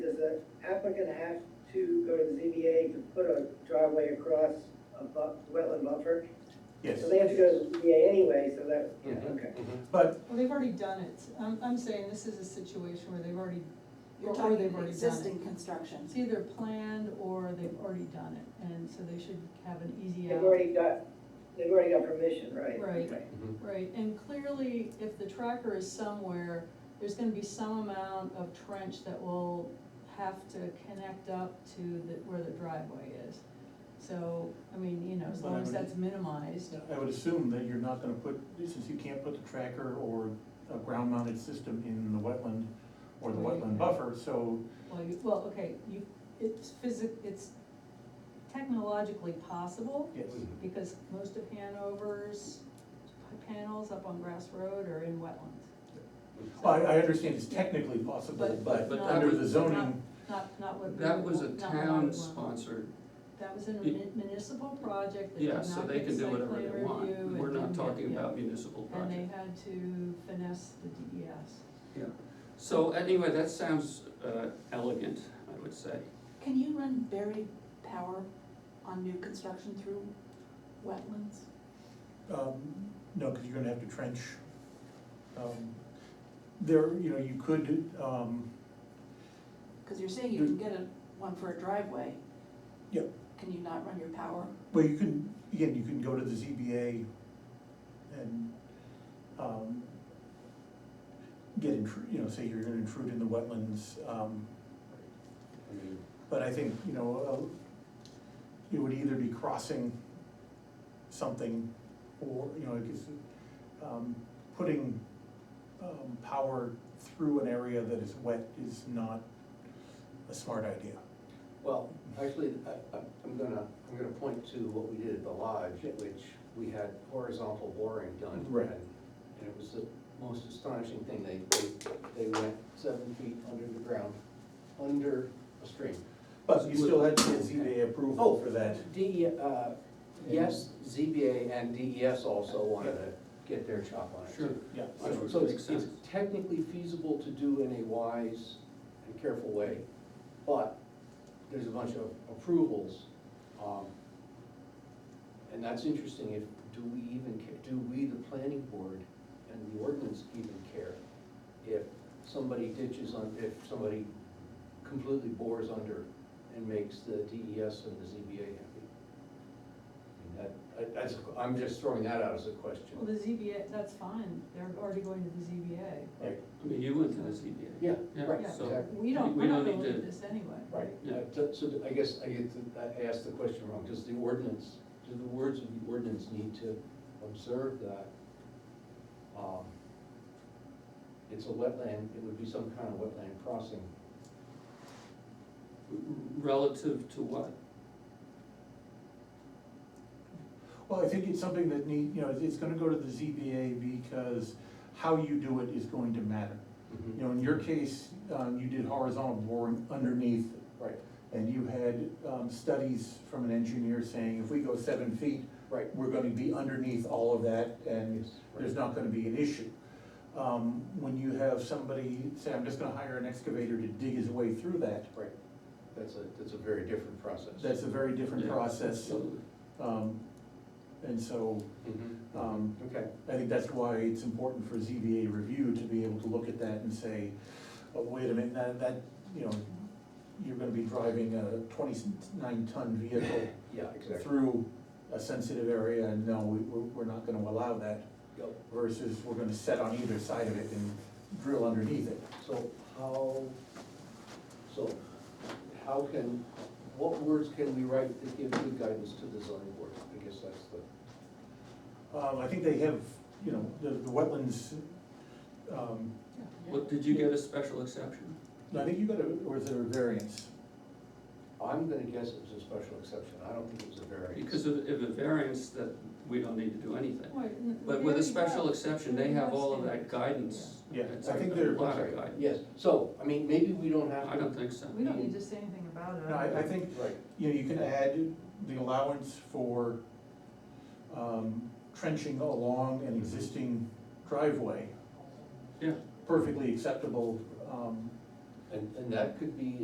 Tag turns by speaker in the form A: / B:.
A: gonna have to go to the ZBA to put a driveway across a bu, wetland buffer?
B: Yes.
A: So they have to go to the ZBA anyway, so that,
B: Mhm.
A: okay.
B: But,
C: Well, they've already done it, I'm, I'm saying this is a situation where they've already,
D: You're
C: or or
D: talking
C: they've
D: about
C: already done
D: existing
C: it.
D: construction.
C: It's either planned or they've already done it, and so they should have an easy
A: They've
C: out.
A: already got, they've already got permission, right?
C: Right.
A: Okay.
C: Right, and clearly, if the tracker is somewhere, there's gonna be some amount of trench that will have to connect up to the, where the driveway is. So, I mean, you know, as long as that's minimized,
B: I would assume that you're not gonna put, since you can't put the tracker or a ground mounted system in the wetland or the wetland buffer, so,
C: well, you, well, okay, you, it's physic, it's technologically possible,
B: yes.
C: because most of Hanover's panels up on Grass Road are in wetlands.
B: Well, I, I understand it's technically possible,
C: But-
B: but
C: but
E: not-
B: under the zoning,
C: Not, not what. we
E: That
C: would
E: was a
C: want- not what I would want.
E: town-sponsored,
C: That was a
E: Yeah.
C: mun- municipal project, they did
E: yeah, so
C: not
E: they
C: get
E: can do
C: site
E: whatever
C: plan
E: they want.
C: review.
E: We're
C: and
E: not
C: didn't get-
E: talking
C: yeah.
E: about municipal
C: And they
E: projects.
C: had to finesse the E DES.
E: Yeah. So anyway, that sounds uh, elegant, I would say.
D: Can you run buried power on new construction through wetlands?
B: um, no, cause you're gonna have to trench. Um, There, you know, you could, um,
D: Cause you're saying you can get a, one for a driveway.
B: Yep.
D: Can you not run your power?
B: Well, you can, again, you can go to the ZBA and, um, get intru, you know, say you're gonna intrude in the wetlands, um, but I think, you know, uh, it would either be crossing something or, you know, it's, um, putting, um, power through an area that is wet is not a smart idea.
F: Well, actually, I, I'm- I'm gonna, I'm gonna point to what we did at the lodge, which we had horizontal boring done.
B: Right.
F: And and it was the most astonishing thing, they, they, they went seven feet under the ground, under a stream.
B: But you still had to Oh. get ZBA approval for that.
F: D, uh, yes, ZBA and DES also wanted to get their chop on it.
E: Sure.
B: Yeah.
E: Sure.
F: So
E: Makes
F: it's,
E: sense.
F: it's technically feasible to do in a wise and careful way, but there's a bunch of approvals. um, And that's interesting, if, do we even, ca- do we, the planning board and the ordinance even care if somebody ditches on, if somebody completely bores under and makes the DES and the ZBA happy? I mean, That, I- that's, I'm just throwing that out as a question.
C: Well, the ZBA, that's fine, they're already going to the ZBA.
F: Right.
E: I mean, you went to E the ZBA.
F: Yeah, right,
C: Yeah.
E: So,
F: exactly.
C: We don't,
E: We
C: we're not
E: don't
C: gonna
E: need
C: look
E: to-
C: at this anyway.
F: Right,
E: Yeah.
F: Uh, so so I guess I get, to- I asked the question wrong, does the ordinance, do the words of the ordinance need to observe that? um, It's a wetland, it would be some kind of wetland crossing.
E: relative to what?
B: Well, I think it's something that need, you know, it's gonna go to the ZBA because how you do it is going to matter. You know, in your case, um, you did horizontal boring underneath,
F: Right,
B: and you had, um, studies from an engineer saying, if we go seven feet,
F: right.
B: we're gonna be underneath all of that, and
F: Yes, right.
B: there's not gonna be an issue. Um, when you have somebody say, I'm just gonna hire an excavator to dig his way through that,
F: Right, that's a, that's a very different process.
B: that's a very different
E: Yeah,
B: process.
E: absolutely.
B: Um, and so, um,
F: Mm-hmm. Okay,
B: I think that's why it's important for ZBA review to be able to look at that and say, oh, wait a minute, that, that, you know, you're gonna be driving a twenty-nine ton vehicle
F: yeah, exactly.
B: through a sensitive area, and no, we, we're, we're not gonna allow that,
F: Yep.
B: versus we're gonna set on either side of it and drill underneath it.
F: So how, so how can, what words can we write that give good guidance to the zoning board? I guess that's the.
B: Um, I think they have, you know, the, the wetlands, um,
E: What, did you get a special exception?
B: I think you got a, or is there a variance?
F: I'm gonna guess it was a special exception, I don't think it was a variance.
E: Because of, of a variance that we don't need to do anything.
C: Why- n-
E: But
C: we
E: with a
C: already
E: special
C: have-
E: exception,
C: we
E: they
C: already
E: have all of
C: standards.
E: that guidance.
B: Yeah.
E: It's
B: I
E: like
B: think
E: a
B: they're-
E: lot
F: Sorry,
E: of guidance.
F: Yes, so, I mean, maybe we don't have to.
E: I don't think so.
C: We don't need to say anything about it.
B: No, I, I think
F: Right,
B: you know, you can add the allowance for um, trenching along an existing driveway,
E: Yeah.
B: perfectly acceptable, um,
F: and, and that could be